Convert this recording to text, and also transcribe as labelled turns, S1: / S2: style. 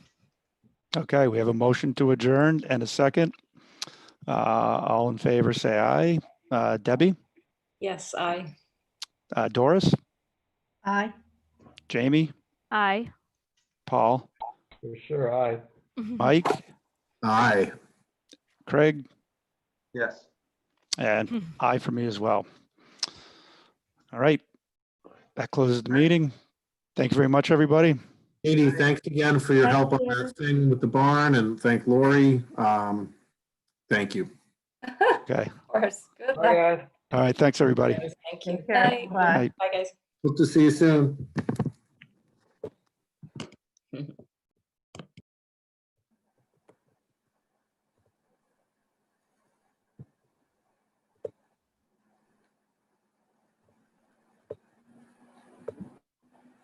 S1: Okay, we have a motion to adjourn and a second. Uh, All in favor, say aye. Uh, Debbie,
S2: Yes, I.
S1: Uh, Doris,
S3: Aye.
S1: Jamie,
S4: Aye.
S1: Paul,
S5: For sure, aye.
S1: Mike,
S6: Aye.
S1: Craig,
S6: Yes.
S1: and I for me as well. All right, that closes the meeting. Thank you very much, everybody.
S6: Katie, thanks again for your help on that thing with the barn and thank Lori. Um, thank you.
S1: Okay,
S2: Of course. Good
S5: Aye,
S2: luck.
S5: aye.
S1: all right, thanks, everybody.
S2: Thank you.
S3: Take care.
S2: Bye.
S3: Bye.
S2: Bye, guys.
S6: Hope to see you soon.